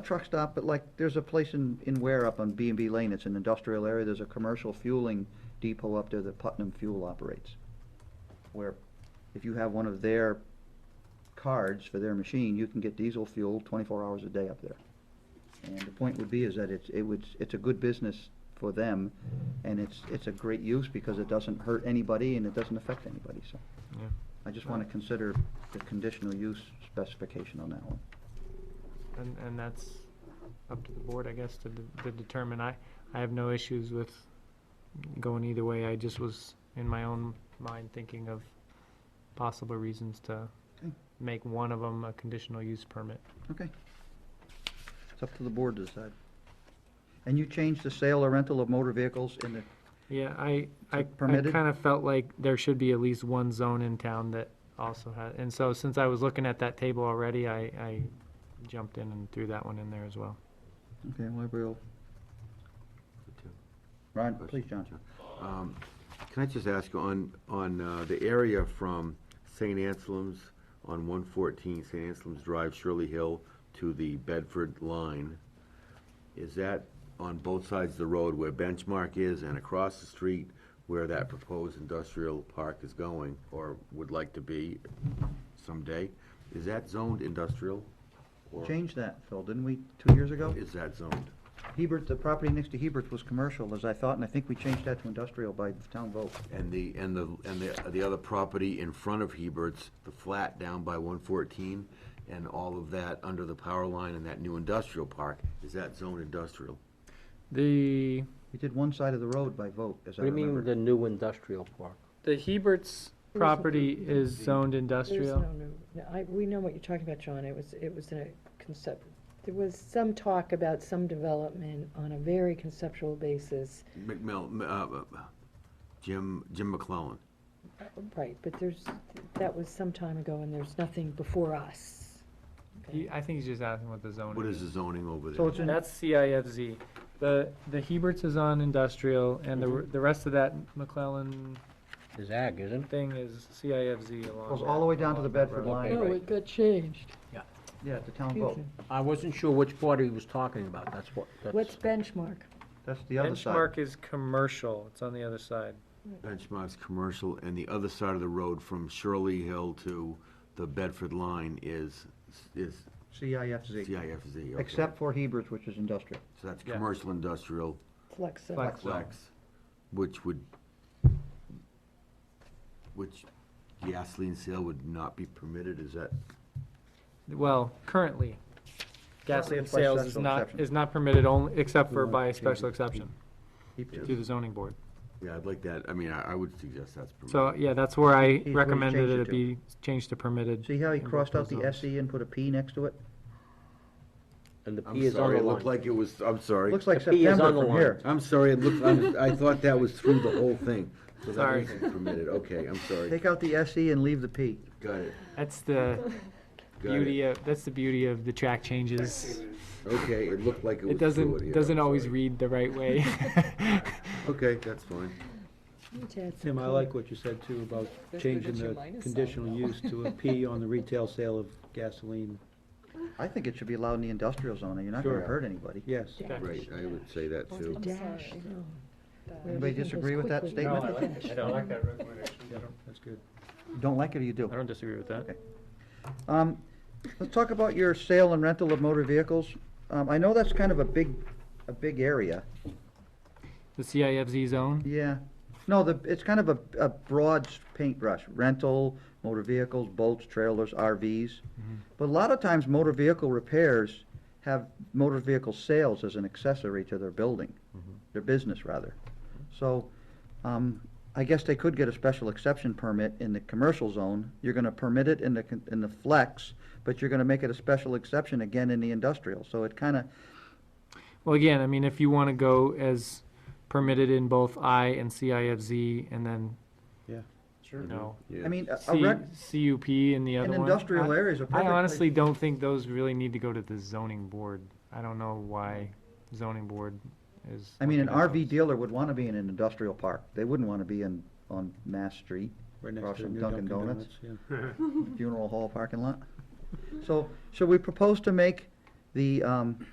truck stop, but like, there's a place in, in Ware up on B and B Lane, it's an industrial area, there's a commercial fueling depot up there that Putnam Fuel operates. Where if you have one of their cards for their machine, you can get diesel fuel twenty-four hours a day up there. And the point would be is that it's, it would, it's a good business for them, and it's, it's a great use because it doesn't hurt anybody and it doesn't affect anybody, so. Yeah. I just wanna consider the conditional use specification on that one. And, and that's up to the board, I guess, to, de- to determine. I, I have no issues with going either way. I just was in my own mind thinking of possible reasons to Okay. make one of them a conditional use permit. Okay. It's up to the board to decide. And you changed the sale or rental of motor vehicles in the, Yeah, I, I, I permitted? kind of felt like there should be at least one zone in town that also had, and so since I was looking at that table already, I, I jumped in and threw that one in there as well. okay, Liberal. Ron, please, John. Um, Can I just ask, you on, on uh, the area from St. Anselm's on 114, St. Anselm's Drive, Shirley Hill, to the Bedford line, is that on both sides of the road where Benchmark is and across the street where that proposed industrial park is going, or would like to be someday? Is that zoned industrial? or Changed that, Phil, didn't we, two years ago? Is that zoned? Hebert, the property next to Hebert was commercial, as I thought, and I think we changed that to industrial by town vote. And the, and the, and the, the other property in front of Hebert's, the flat down by one fourteen, and all of that under the power line and that new industrial park, is that zone industrial? The, We did one side of the road by vote, as I What do you mean with remember. the new industrial park? the Hebert's There isn't- property is zoned There's industrial. no new, no, I, we know what you're talking about, John, it was, it was in a concept, there was some talk about some development on a very conceptual basis, McMill, uh, uh, Jim, Jim McClellan. Uh, right, but there's, that was some time ago, and there's nothing before us. He, I think he's just asking what the zone What is is. the zoning over So there? it's in, That's CIFZ. The, the Heberts is on industrial, and the, r- the rest of that McClellan Is ag, isn't it? thing is CIFZ along. goes that- all the way down to the along that Bedford Oh. line. road. Oh, got changed. Yeah, the town vote. I wasn't sure which part he was talking about, that's what, What's that's, benchmark? That's the other side. Benchmark is commercial, it's on the other side. Benchmark's commercial, and the other side of the road from Shirley Hill to the Bedford line is, is CIFZ, CIFZ, okay. except for Hebert, which is industrial. So that's Yeah. commercial industrial. Flex zone. Flex zone. Flex, which would, which gasoline sale would not be permitted, is that? Well, currently, gasoline it's by sales is special not, exception. is not permitted only, except for by special exception Hebert. to the zoning board. Yeah, I'd like that, I mean, I, I would suggest that's So, permitted. yeah, that's where I He's where he recommended changed it it to. be changed to permitted. See how he in both crossed out those the zones. SE and put a P next to it? and the P I'm is on sorry, the it looked line. like it was, I'm sorry. Looks like The P is September on the from line. here. I'm sorry, it looked, I'm- I thought that was through the whole thing. So that Sorry. wasn't Permitted, okay, I'm sorry, Take out the SE and leave the P. got it, That's the got beauty it. of, that's the beauty of the track changes. Okay, it looked like it It was through it doesn't, here, doesn't I'm always sorry. read the right way. Okay, that's fine. Need to add some Tim, I color. like what you said too about changing the conditional use to a P on the retail sale of gasoline. I think it should be allowed in the industrial zone, and you're not gonna Sure. hurt anybody. Yes. Right, I would say that too. Dash, no. Anybody disagree with that Everything goes statement? quickly. Dash. don't Yeah, that's good. Don't like it or you do? disagree with that. Um, let's talk about your sale and rental of motor vehicles. Um, I know that's kind of a big, a big area. The CIFZ zone, Yeah. No, the, it's kind of a, a broad s- paintbrush, rental, motor vehicles, boats, trailers, RVs. But a lot of times motor vehicle repairs have motor vehicle sales as an accessory to their building, their business rather. So, um, I guess they could get a special exception permit in the commercial zone. You're gonna permit it in the, con- in the flex, but you're gonna make it a special exception again in the industrial. So it kinda, well, again, I mean, if you wanna go as permitted in both I and CIFZ, and then. Yeah. Sure. No. Yeah. I mean, a- a rec, C, CUP in the other an one. industrial I- area is a perfect I place honestly don't think those really need to go to the zoning board. I don't know why zoning board is. I mean, an looking at RV those. dealer would want to be in an industrial park. They wouldn't want to be in, on Mass Street, Right next Across to the from new Dunkin' Dunkin' Donuts. Donuts, yeah. funeral hall parking lot. So, so we propose to make the, um,